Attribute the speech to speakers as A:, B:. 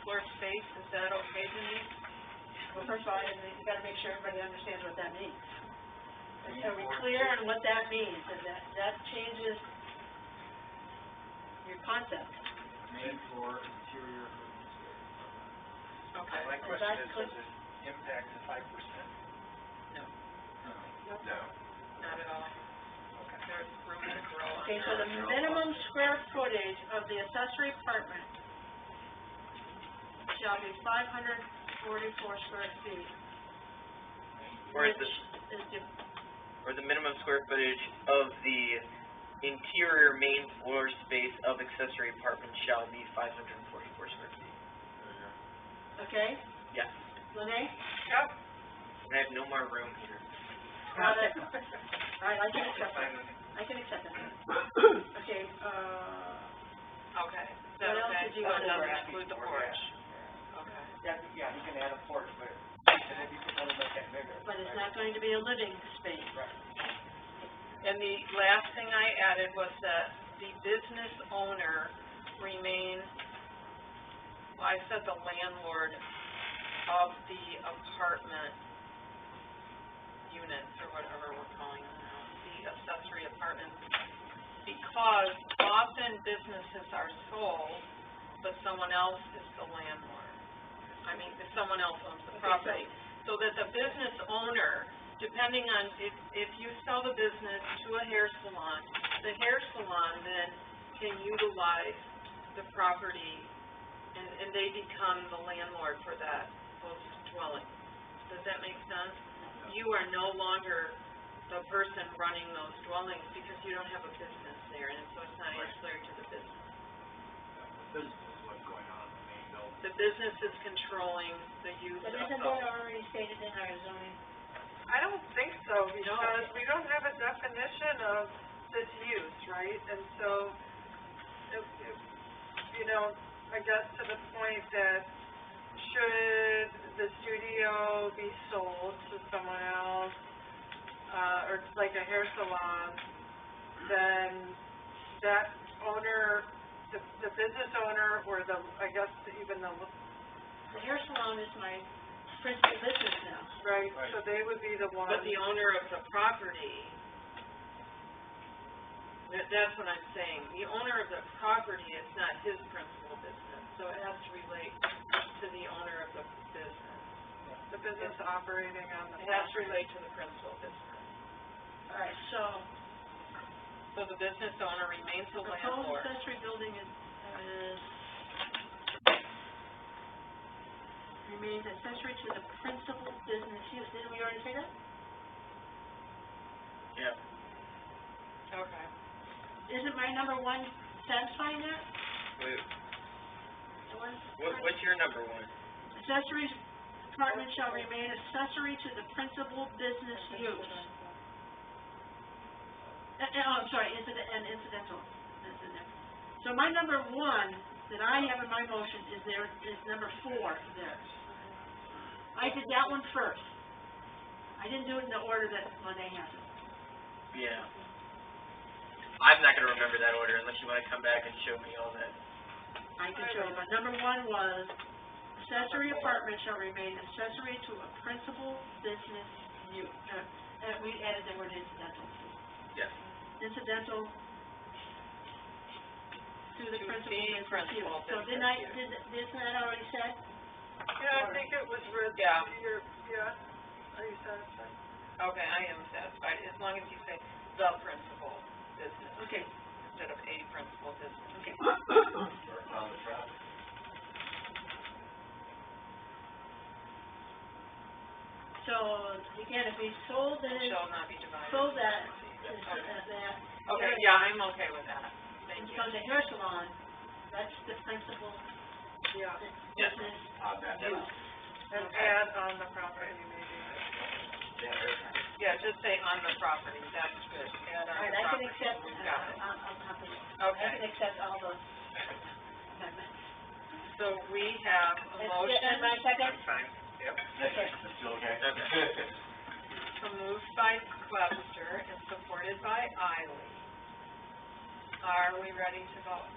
A: chief, is that okay to you? Well, first of all, I think you gotta make sure everybody understands what that means. Are we clear on what that means, and that, that changes your concept?
B: Main floor, interior improvements area.
A: Okay.
C: My
A: Is
C: question
A: that
C: is,
A: clear?
C: does it impact the five percent?
A: Nope.
C: No.
D: Not at all. There's room to grow on
A: Okay, so the minimum square footage of the accessory apartment shall be five hundred forty-four square feet.
E: Or is
A: which
E: this-
A: is the-
E: or the minimum square footage of the interior main floor space of accessory apartment shall be five hundred and forty-four square feet.
A: Okay,
E: Yes,
A: Lene?
D: Yep.
E: and I have no more room here.
A: Got it. All right, I can accept that. I can accept that. Okay, uh,
D: Okay, so
A: What else
D: that,
A: did you
D: that
A: want to
D: doesn't
A: add?
D: include the porch. Okay.
C: Yeah, yeah, you can add a porch, but, but if you can only make that bigger.
A: but it's not going to be a living space.
D: And the last thing I added was that the business owner remain, well, I said the landlord of the apartment units or whatever we're calling them now, the accessory apartments. Because often businesses are sold, but someone else is the landlord. I mean, if someone else owns the
A: Okay, so-
D: property. So that the business owner depending on, if, if you sell the business to a hair salon, the hair salon then can utilize the property, and, and they become the landlord for that, those dwellings. Does that make sense? You are no longer the person running those dwellings, because you don't have a business there, and so it's not ancillary to the business.
B: This is what's going on in the main building.
D: The business is controlling the use of
A: But
D: those.
A: isn't that already stated in our zoning?
F: I don't think so, because we don't have a definition of this use, right? And so, if, if, you know, I guess to the point that should the studio be sold to someone else, uh, or it's like a hair salon, then that owner, the, the business owner, or the, I guess even the,
A: The hair salon is my principal business now.
F: right, so they would be the one.
D: But the owner of the property, that, that's what I'm saying, the owner of the property is not his principal business, so it has to relate to the owner of the business.
F: The business operating on the.
D: It has to relate to the principal business.
A: All right, so
D: So the business owner remains the
A: proposed
D: landlord.
A: accessory building is, is remains accessory to the principal business use. Didn't we already say that?
E: Yeah.
D: Okay.
A: Isn't my number one satisfying that?
E: Wait,
A: The one-
E: what, what's your number one?
A: Accessory apartment shall remain accessory to the principal business use. Uh, uh, oh, I'm sorry, incident, and incidental, incidental. So my number one that I have in my motion is there, is number four there. I did that one first. I didn't do it in the order that Monet has it.
E: Yeah. I'm not gonna remember that order unless you wanna come back and show me all that.
A: I can show you, but number one was accessory apartment shall remain accessory to a principal business use. Uh, uh, we added the word incidental.
E: Yes.
A: Incidental to the
D: To the
A: principal business use.
D: principal
A: So didn't I,
D: business use.
A: did, isn't that already said?
F: Yeah, I think it was read,
D: Yeah,
F: your, yeah, are you satisfied?
D: okay, I am satisfied, as long as you say the principal business
A: Okay,
D: instead of a principal business.
A: okay.
B: Or on the property.
A: So, again, if we sold the,
D: Shall not be divided.
A: sold that,
D: Okay.
A: as that,
D: Okay, yeah, I'm okay with that,
A: and
D: thank you.
A: so the hair salon, that's the principal
F: Yeah,
E: Yes.
A: business
B: Uh, that, that,
A: use.
F: and add on the property maybe.
D: Yeah, just say on the property, that's good, add on
A: All right,
D: the
A: I can
D: property.
A: accept,
D: We've got it.
A: uh, on, on top of it. I
D: Okay,
A: can accept all those amendments.
D: so we have a motion,
A: And my second,
C: I'm fine. Yep.
B: that's still okay.
E: Okay.
D: so moved by Webster and supported by Eily. Are we ready to vote?